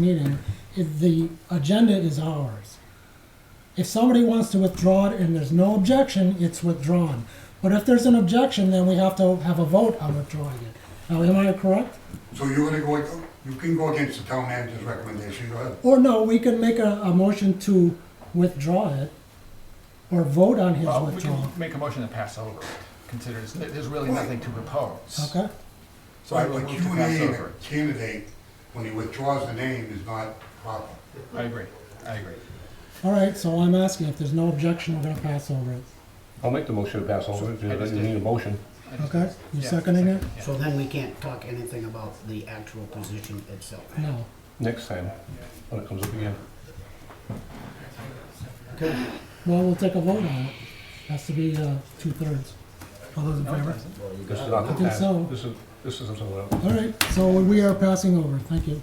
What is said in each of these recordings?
meeting, it- the agenda is ours. If somebody wants to withdraw it and there's no objection, it's withdrawn. But if there's an objection, then we have to have a vote on withdrawing it. Now, am I correct? So you're gonna go, ag- you can go against the town manager's recommendation, go ahead. Or no, we can make a, a motion to withdraw it or vote on his Well, we can withdrawal. make a motion to pass over it, consider, it's- there's really nothing to propose. Okay? So I But would but move to pass QA over a candidate, when he withdraws the name, is not proper. it. I agree, I agree. All right, so I'm asking if there's no objection, we're gonna pass over it. I'll make the motion to pass over, if you I just you did. need a motion. I just- Okay, you yeah, seconding it? yeah. So then we can't talk anything about the actual position itself. No. Next time, when it comes up again. Well, we'll take a vote on it. Has to be, uh, two-thirds. All those in No, it favor? doesn't. This is not I think so. This is, this is something else. All right, so we are passing over, thank you.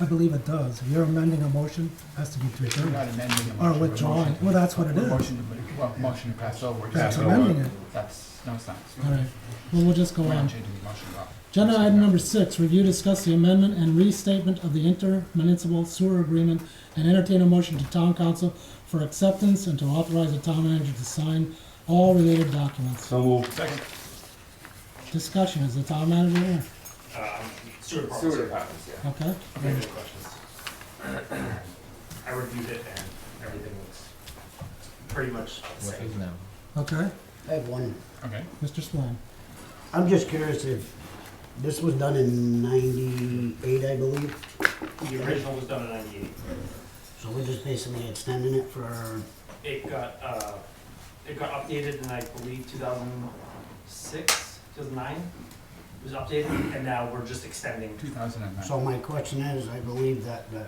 I believe it does. If you're amending a motion, it has to be three We're not thirds. amending a Or motion. we're withdrawing, motion- well, that's what it we're is. Motion, to- well, motion to pass over. That's Pass Exactly. over. amending it. That's, no, it's not. It's All not. right, well, we'll just go We're on. not changing the motion at all. Agenda item number six, review, discuss the amendment and restatement of the intermunicipal sewer agreement and entertain a motion to town council for acceptance and to authorize the town manager to sign all related documents. So moved. Second, Discussion, is the town manager here? Sewer department. yeah. Okay, Any other questions? I reviewed it and everything looks pretty much the same. okay, I have one, okay. Mr. Swan. I'm just curious if, this was done in ninety-eight, I believe, The original was done in ninety-eight. so we're just basically extending it for, It got, uh, it got updated in, I believe, two thousand six, two thousand nine. It was updated and now we're just extending. Two thousand and nine. so my question is, I believe that the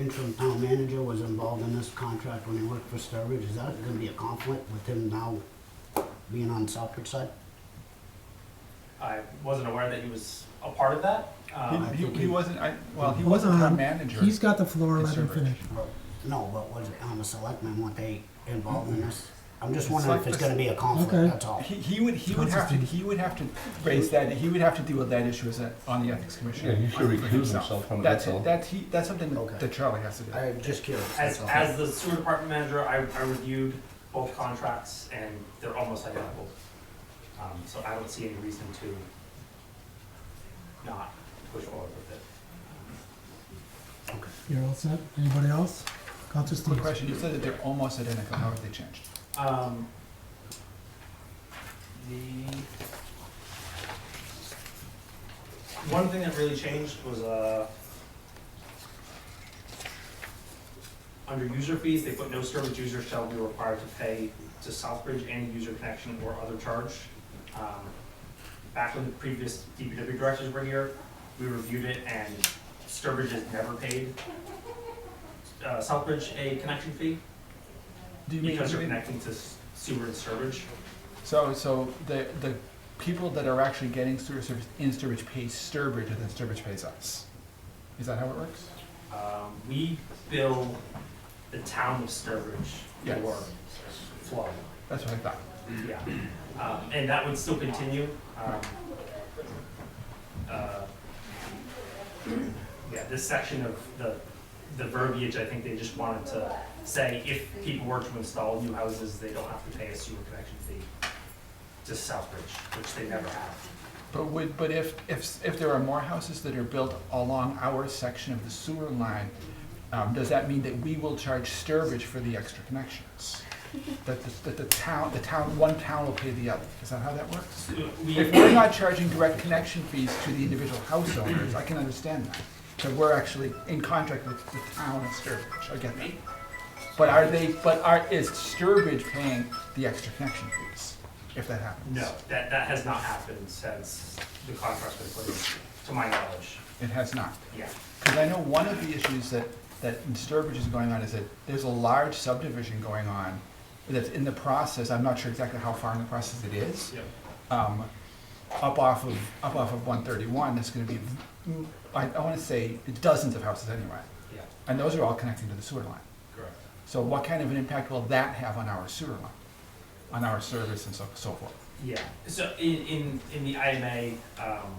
interim town manager was involved in this contract when he worked for Sturbridge, is that gonna be a conflict with him now being on Southbridge side? I wasn't aware that he was a part of that. Um, He, he- he wasn't, I, well, he Hold wasn't town on. manager. He's got the floor, It's let him Sturbridge. finish. No, but was it on the selectmen, weren't they involved in this? I'm just wondering if it's gonna be a Okay. conflict, that's all. He, he would, he would have to, he would have to raise that, he would have to deal with that issue as a, on the ethics commission. Yeah, he should for recuse himself from it, That's, that's all. that's, he, that's something Okay. that Charlie has to do. I'm just curious, As, that's all. as the sewer department manager, I, I reviewed both contracts and they're almost identical. Um, so I don't see any reason to not push forward with it. You're all set? Anybody else? Counselor Quick Steve? question, you said that they're almost identical, how have they changed? Um, the one thing that really changed was uh, under user fees, they put no service user shall be required to pay to Southbridge any user connection or other charge. Um, back when the previous DPW directors were here, we reviewed it and Sturbridge has never paid uh, Southbridge a connection fee. Do you mean, Because you you're mean, connecting to s- sewer and Sturbridge. so, so the, the people that are actually getting sewer service in Sturbridge pay Sturbridge, and then Sturbridge pays us? Is that how it works? Um, we bill the town of Sturbridge Yes. for flow, That's what I thought. yeah. Um, and that would still continue, um, uh, yeah, this section of the, the verbiage, I think they just wanted to say if people were to install new houses, they don't have to pay a sewer connection fee to Southbridge, which they never have. But would, but if, if, if there are more houses that are built along our section of the sewer line, um, does that mean that we will charge Sturbridge for the extra connections? That the, that the town, the town, one town will pay the other, is that how that works? We- If we're not charging direct connection fees to the individual house owners, I can understand that, that we're actually in contract with the town of Sturbridge, I get that. But are they, but are, is Sturbridge paying the extra connection fees, if that happens? No, that, that has not happened since the contract's been put in, to my knowledge, It has not? yeah. Because I know one of the issues that, that in Sturbridge is going on is that there's a large subdivision going on that's in the process, I'm not sure exactly how far in the process it is, Yep. um, up off of, up off of one thirty-one, that's gonna be, mm, I, I wanna say dozens of houses anyway. Yeah, And those are all connecting to the sewer line. correct. So what kind of an impact will that have on our sewer line? On our service and so, so forth? Yeah, so in, in, in the IMA, um,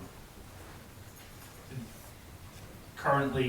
currently